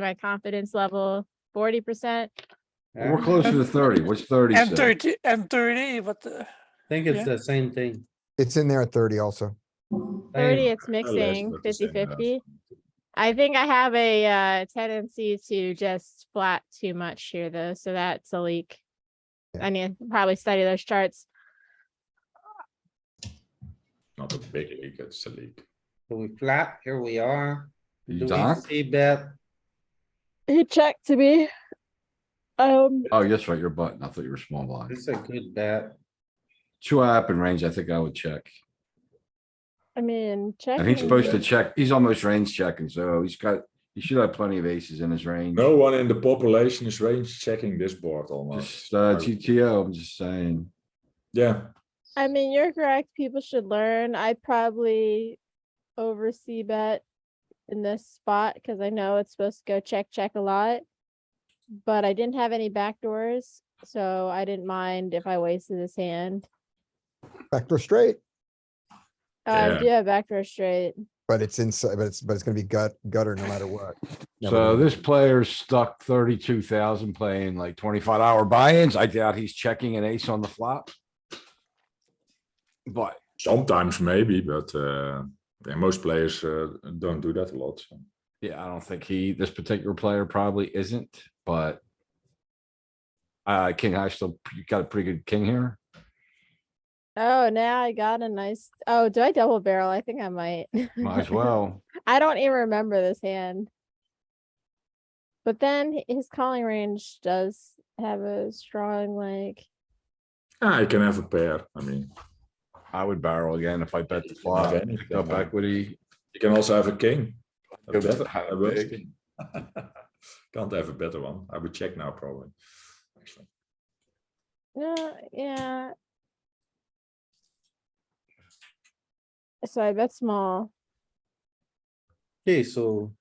my confidence level, forty percent. We're Yeah. closer to thirty. What's thirty M say? thirty, M thirty, but uh, Think Yeah. it's the same thing. It's in there at thirty also. Thirty, Same. it's mixing, about the same, 50-50. yeah. I think I have a uh tendency to just flat too much here though, so that's a leak. Yeah. I need to probably study those charts. Not a big leak, it's a leak. So We flap, here we are. Do You we doc? see bet? He checked to me. Um, Oh, yes, right, your button. I thought you were small blind. It's a good bet. Two up in range, I think I would check. I mean, check. And he's supposed to check, he's almost range checking, so he's got, he should have plenty of aces in his range. No one in the population is range checking this board almost. Just, uh, GTO, I'm just saying. Yeah, I mean, you're correct. People should learn. I probably oversee bet in this spot because I know it's supposed to go check, check a lot. But I didn't have any backdoors, so I didn't mind if I wasted this hand. Backdoor straight, Uh, Yeah. do have backdoor straight. but it's inside, but it's, but it's gonna be gut, gutter no matter what. Never So mind. this player's stuck thirty-two thousand playing like twenty-five hour buy-ins. I doubt he's checking an ace on the flop. But sometimes maybe, but uh, yeah, most players uh, don't do that a lot. so. Yeah, I don't think he, this particular player probably isn't, but. Uh, king high still, you got a pretty good king here. Oh, now I got a nice. Oh, do I double barrel? I think I might. Might as well. I don't even remember this hand. But then h- his calling range does have a strong like. Ah, I can have a pair. I mean, I would barrel again if I bet the flop, Okay. pick up equity. you can also have a king. A Go better, high a worse big. king. Can't have a better one. I would check now probably. actually. No, yeah. So I bet small. Okay, so.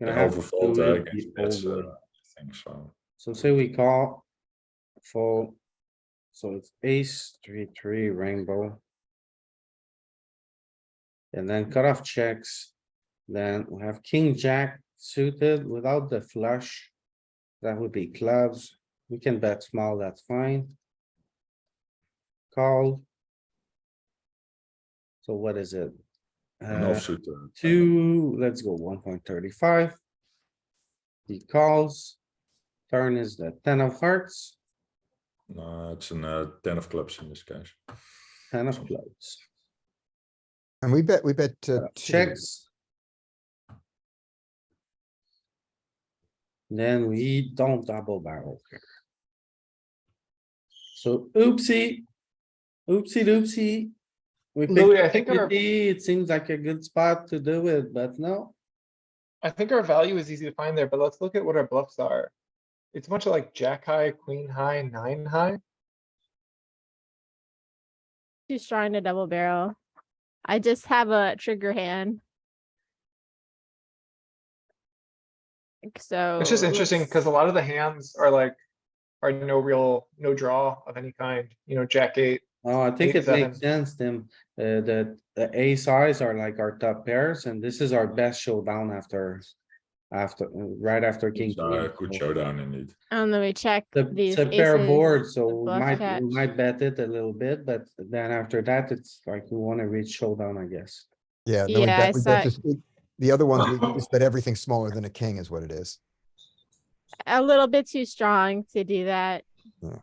Gonna Yeah, have overfold, to uh, leave against the bets, over. uh, I think so. So say we call. Fold. So it's ace, three, three, rainbow. And then cutoff checks. Then we have king, jack suited without the flush. That would be clubs. We can bet small, that's fine. Call. So what is it? An Uh, offsuit. uh, two, let's go one point thirty-five. He calls. Turn is the ten of hearts, No, it's an uh, ten of clubs in this case. ten of clubs, And we bet, we bet uh, two. checks. Then we don't double barrel here. So oopsie. Oopsie doopsie. We Louis, I picked think our, equity, it seems like a good spot to do it, but no. I think our value is easy to find there, but let's look at what our bluffs are. It's much like jack high, queen high, nine high. Too strong to double barrel. I just have a trigger hand. Like, So. It's just interesting let's- because a lot of the hands are like, are no real, no draw of any kind, you know, jack eight. Oh, I think Eight, it makes seven. sense, Tim, uh, that the ace eyes are like our top pairs and this is our best showdown after. After, uh, right after king. It's, uh, queen. Good showdown indeed. And then we check The, these it's a pair aces. board, so the we bluff might, we catch. might bet it a little bit, but then after that, it's like we wanna reach showdown, I guess. Yeah. and then we Yeah, bet- I we bet saw it. just- we- The other one, we just bet everything smaller than a king is what it is. a little bit too strong to do that. Yeah.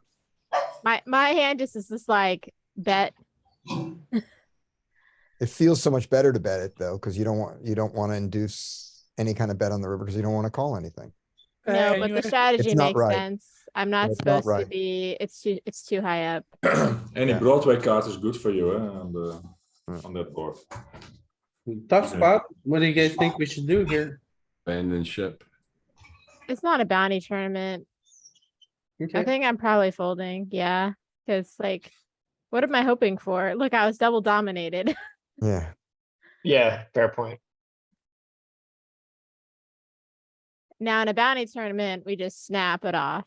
My my hand just is just like bet. It feels so much better to bet it though, because you don't want, you don't want to induce any kind of bet on the river because you don't want to call anything. No, uh, but you- the strategy It's not makes right. sense. I'm not it's supposed not to right. be. It's too it's too high up. Any Yeah. Broadway card is good for you, eh, on the, Yeah. on that board. Tough Yeah. spot, what do you guys think we should do here? Abandon ship. It's not a bounty tournament. I Okay, think I'm probably folding. Yeah, because like, what am I hoping for? Look, I was double dominated. Yeah. Yeah, fair point. now in a bounty tournament, we just snap it off.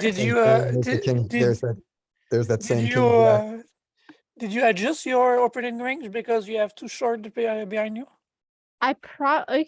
Did And you, uh, there's the did, king- There's did, that, there's that same. did king you, jack. uh, did uh, you adjust your opening range because you have two short be- behind you? I probably